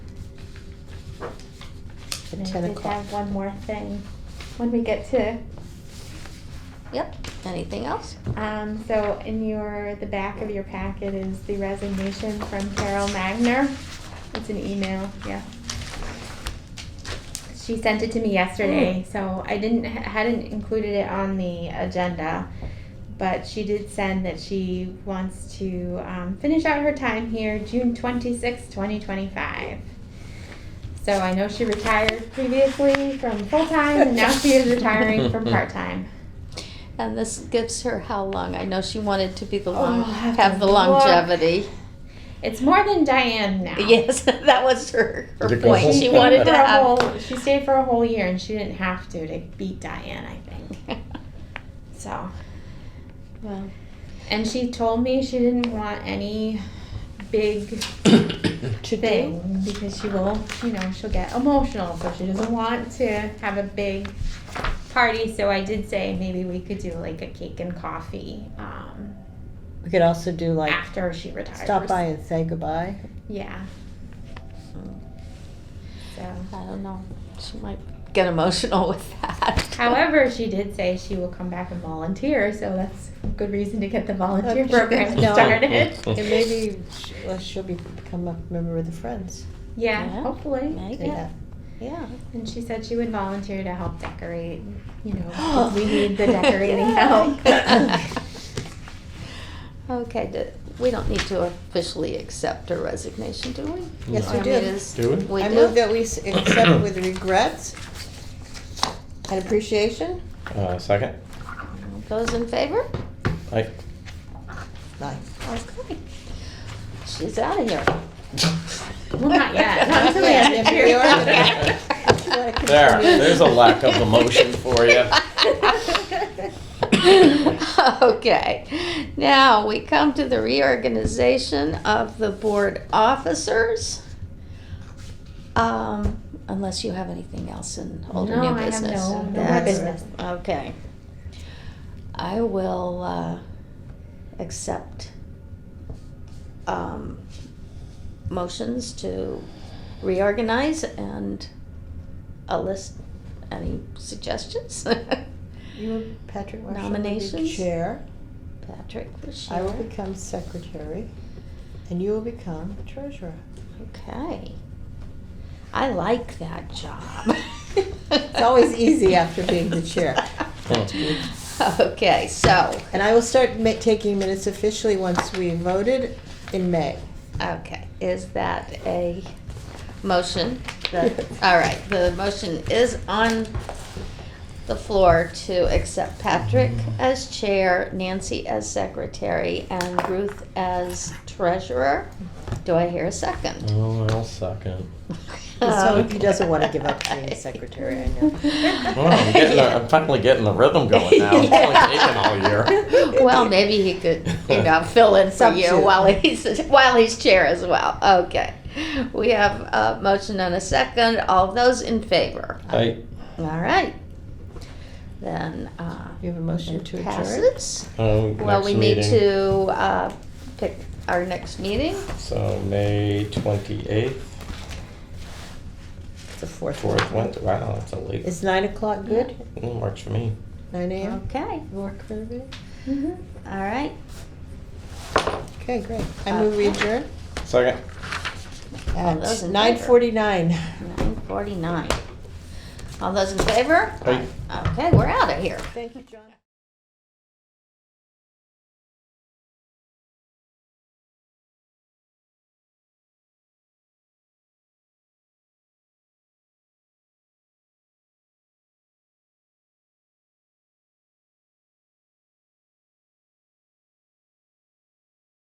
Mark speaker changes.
Speaker 1: And
Speaker 2: at
Speaker 1: I
Speaker 2: ten
Speaker 1: did
Speaker 2: o'clock.
Speaker 1: have one more thing when we get to
Speaker 2: Yep, anything else?
Speaker 1: Um, so in your, the back of your packet is the resignation from Carol Magner. It's an email, yeah. She sent it to me yesterday, so I didn't, hadn't included it on the agenda. But she did send that she wants to, um, finish out her time here, June twenty-sixth, twenty twenty-five. So I know she retired previously from full-time and now she is retiring from part-time.
Speaker 2: And this gives her how long? I know she wanted to be the
Speaker 1: Oh,
Speaker 2: long,
Speaker 1: I'll have to
Speaker 2: have the
Speaker 1: look.
Speaker 2: longevity.
Speaker 1: It's more than Diane now.
Speaker 2: Yes, that was her, her
Speaker 3: To go
Speaker 2: point.
Speaker 3: home.
Speaker 2: She wanted to
Speaker 1: For a
Speaker 2: have.
Speaker 1: whole- she stayed for a whole year and she didn't have to to beat Diane, I think. So,
Speaker 2: Well,
Speaker 1: and she told me she didn't want any big
Speaker 2: to do.
Speaker 1: thing because she will, you know, she'll get emotional. So she doesn't want to have a big party. So I did say maybe we could do like a cake and coffee um,
Speaker 4: We could also do like
Speaker 1: after she retires.
Speaker 4: stop by and say goodbye.
Speaker 1: Yeah. So.
Speaker 2: I don't know. She might get emotional with that.
Speaker 1: However, she did say she will come back and volunteer, so that's a good reason to get the volunteer
Speaker 4: Okay.
Speaker 1: program
Speaker 4: No.
Speaker 1: started.
Speaker 4: And maybe she- well, she'll be- become a member of the Friends.
Speaker 1: Yeah,
Speaker 2: Yeah.
Speaker 1: hopefully.
Speaker 2: Maybe.
Speaker 4: Yeah. Yeah.
Speaker 1: And she said she would volunteer to help decorate, you know, because we need the decorating help.
Speaker 2: Okay, do- we don't need to officially accept her resignation, do we?
Speaker 4: Yes,
Speaker 2: Or
Speaker 4: we
Speaker 2: I mean,
Speaker 4: do.
Speaker 2: is-
Speaker 3: Do we?
Speaker 2: We
Speaker 4: I move
Speaker 2: do?
Speaker 4: that we s- accept with regrets and appreciation.
Speaker 3: Uh, second?
Speaker 2: Those in favor?
Speaker 3: Aye.
Speaker 4: Nice.
Speaker 2: Okay. She's out of here.
Speaker 1: Well, not yet. Not until we
Speaker 4: Yeah,
Speaker 1: have
Speaker 4: if you
Speaker 1: the
Speaker 4: are gonna-
Speaker 3: There, there's a lack of emotion for you.
Speaker 2: Okay, now we come to the reorganization of the board officers. Um, unless you have anything else in old or
Speaker 1: No,
Speaker 2: new
Speaker 1: I have
Speaker 2: business.
Speaker 1: no- no more
Speaker 2: That's-
Speaker 1: business.
Speaker 2: Okay. I will, uh, accept, um, motions to reorganize and a list, any suggestions?
Speaker 4: You, Patrick Marshall, will be
Speaker 2: Nominations?
Speaker 4: chair.
Speaker 2: Patrick, this
Speaker 4: I will
Speaker 2: year.
Speaker 4: become secretary, and you will become treasurer.
Speaker 2: Okay. I like that job.
Speaker 4: It's always easy after being the chair.
Speaker 2: Okay, so,
Speaker 4: And I will start ma- taking minutes officially once we voted in May.
Speaker 2: okay, is that a motion? that- All right, the motion is on the floor to accept Patrick as chair, Nancy as secretary, and Ruth as treasurer. Do I hear a second?
Speaker 3: Oh, I'll second.
Speaker 4: So he doesn't want to give up being
Speaker 2: Okay.
Speaker 4: secretary, I know.
Speaker 3: Well, I'm, getting a, I'm finally getting the rhythm going now. It's only taken all year.
Speaker 2: Well, maybe he could, you know, fill in for you
Speaker 4: Substitute.
Speaker 2: while he's, while he's chair as well. Okay. We have a motion and a second. All those in favor?
Speaker 3: Aye.
Speaker 2: All right. Then, uh,
Speaker 4: You have a motion to adjourn?
Speaker 2: passes.
Speaker 3: Um,
Speaker 2: Well,
Speaker 3: next
Speaker 2: we need
Speaker 3: meeting.
Speaker 2: to, uh, pick our next meeting.
Speaker 3: So, May 28th,
Speaker 4: It's the fourth one.
Speaker 3: 4th Wednesday. Wow, that's a late.
Speaker 4: Is nine o'clock good?
Speaker 3: It works for me.
Speaker 4: Nine AM?
Speaker 2: Okay,
Speaker 4: Work for everybody?
Speaker 1: Mhm.
Speaker 2: all right.
Speaker 4: Okay, great. I move we
Speaker 2: Okay.
Speaker 4: adjourn
Speaker 3: Second.
Speaker 4: Oh,
Speaker 2: those
Speaker 4: at
Speaker 2: in
Speaker 4: nine forty-nine.
Speaker 2: Nine forty-nine. All those in favor?
Speaker 3: Aye.
Speaker 2: Okay, we're out of here.
Speaker 4: Thank you, John.